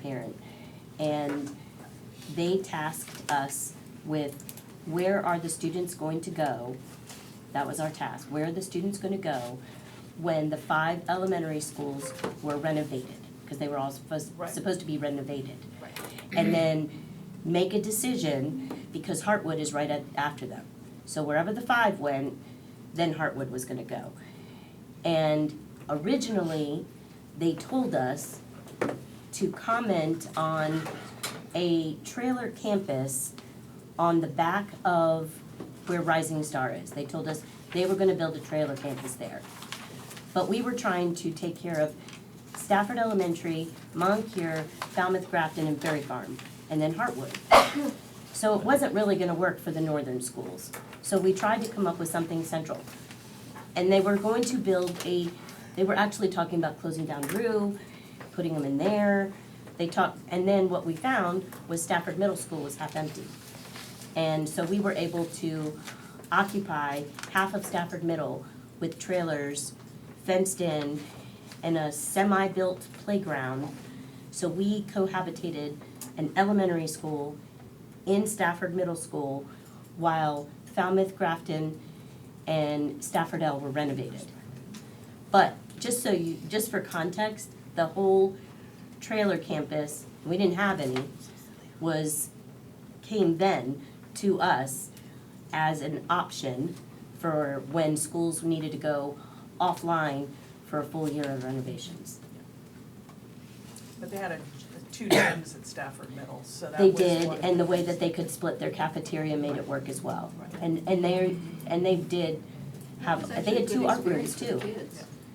parent. And they tasked us with where are the students going to go? That was our task, where are the students gonna go when the five elementary schools were renovated? Because they were all supposed, Right. supposed to be renovated. Right. And then make a decision, because Hartwood is right at, after them. So wherever the five went, then Hartwood was gonna go. And originally, they told us to comment on a trailer campus on the back of where Rising Star is. They told us they were gonna build a trailer campus there. But we were trying to take care of Stafford Elementary, Moncur, Falmouth Grafton, and Berry Farm, and then Hartwood. So it wasn't really gonna work for the northern schools. So we tried to come up with something central. And they were going to build a, they were actually talking about closing down Rue, putting them in there. They talked, and then what we found was Stafford Middle School was half empty. And so we were able to occupy half of Stafford Middle with trailers fenced in and a semi-built playground. So we cohabitated an elementary school in Stafford Middle School while Falmouth Grafton and Stafford L were renovated. But just so you, just for context, the whole trailer campus, we didn't have any, was, came then to us as an option for when schools needed to go offline for a full year of renovations. But they had a, two gyms at Stafford Middle, so that They was did, one- and the way that they could split their cafeteria made it work as well. Right. And, and they, and they did have, they had two art rooms too.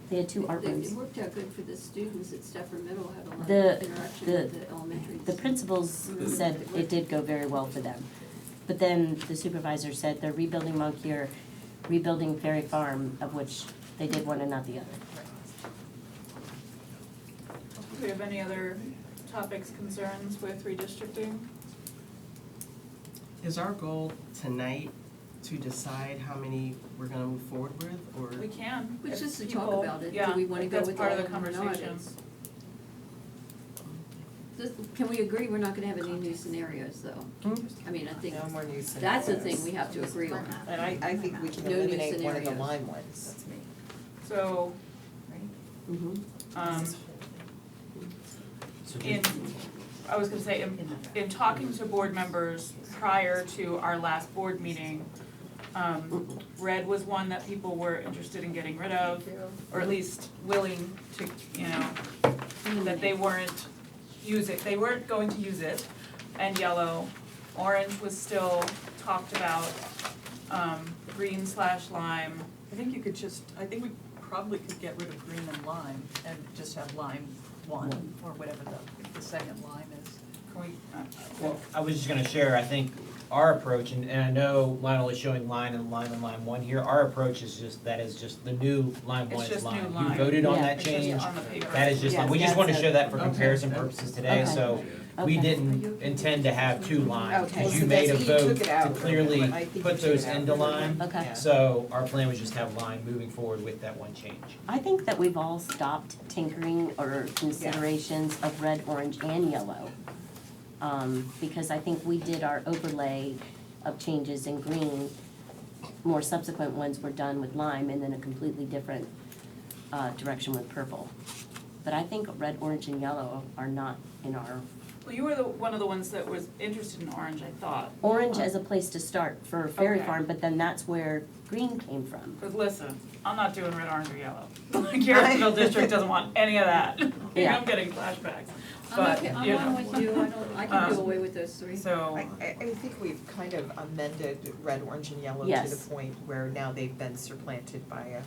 They had two art rooms. It worked out good for the students at Stafford Middle, had a lot The- of interaction the- with the elementary. The principals said it did go very well for them. But then the supervisor said they're rebuilding Moncur, rebuilding Ferry Farm, of which they did one and not the other. Do we have any other topics, concerns with redistricting? Is our goal tonight to decide how many we're gonna move forward with, or? We can. Which if is to talk people- about it. Do yeah, we wanna if go that's with part of the all or not? conversation. It's- This- Can we agree we're not gonna have any new scenarios though? Hmm? I mean, I think No more new scenarios. that's the thing we have to agree on. And I, I think we can No new eliminate one of the scenarios. Lyme ones. So, um, in, I was gonna say, in, in talking to board members prior to our last board meeting, um, red was one that people were interested in getting rid of, or at least willing to, you know, that they weren't use it, they weren't going to use it, and yellow. Orange was still talked about, um, green slash lime, I think you could just, I think we probably could get rid of green and lime and just have lime one or whatever the, the second lime is. can we, uh, Well, I was just gonna share, I think our approach, and, and I know Lionel is showing line and line and line one here, our approach is just, that is just the new line It's one is just line. new line. You voted on Yeah. that it's just change, on the paper. that is just, Yeah, we just wanna that's show that for Okay. comparison purposes today, Okay. so we Okay. didn't intend to have two lines, Okay, cause so you made a that's, you vote took it to out. clearly I think you put took it those out. into line. Okay. Yeah. So our plan was just have line moving forward with that one change. I think that we've all stopped tinkering or considerations of red, orange, and yellow. Um, because I think we did our overlay of changes in green. More subsequent ones were done with lime and then a completely different, uh, direction with purple. But I think red, orange, and yellow are not in our, Well, you were the, one of the ones that was interested in orange, I thought, orange as a place to start for Ferry Okay. Farm, but then that's where green came from. but listen, I'm not doing red, orange, or yellow. Garrettsville district doesn't want any of that, Maybe Yeah. I'm getting flashbacks, I'm but, okay, you know. I'm on with you, I don't, I can do Um, away with those three. So, I, I, I think we've kind of amended red, orange and yellow to Yes. the point where now they've been supplanted by a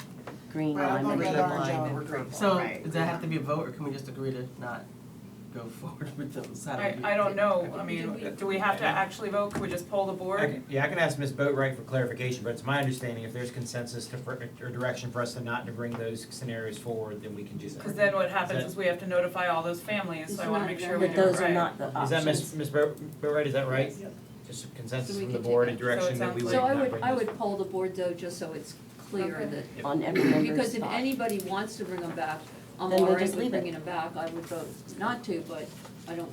Green, Well, lime, and red, green, orange, yellow, lime or and green. purple, So, right. does that have to be a vote, or can we just agree to not go forward with those? How do I, we- I don't know, I Did we- mean, do we have to actually vote, could we just poll the board? I can- Yeah, I can ask Ms. Boatright for clarification, but it's my understanding if there's consensus to, for- or direction for us to not to bring those scenarios forward, then we can do that. Cause then what happens that- is we have to notify all those families, so I wanna make sure we do but it right. those are not the Is options. that Ms. Ms. Bo- Boatright, is that right? Yes. Just So consensus we from the can take board it. and So it direction that we sounds would So not I bring would, I those. would poll the board though, just so it's clear Okay. that, On every member's because if spot. anybody wants to bring them back, I'm Then we'll all right just with leave it. bringing them back, I would vote not to, but I don't want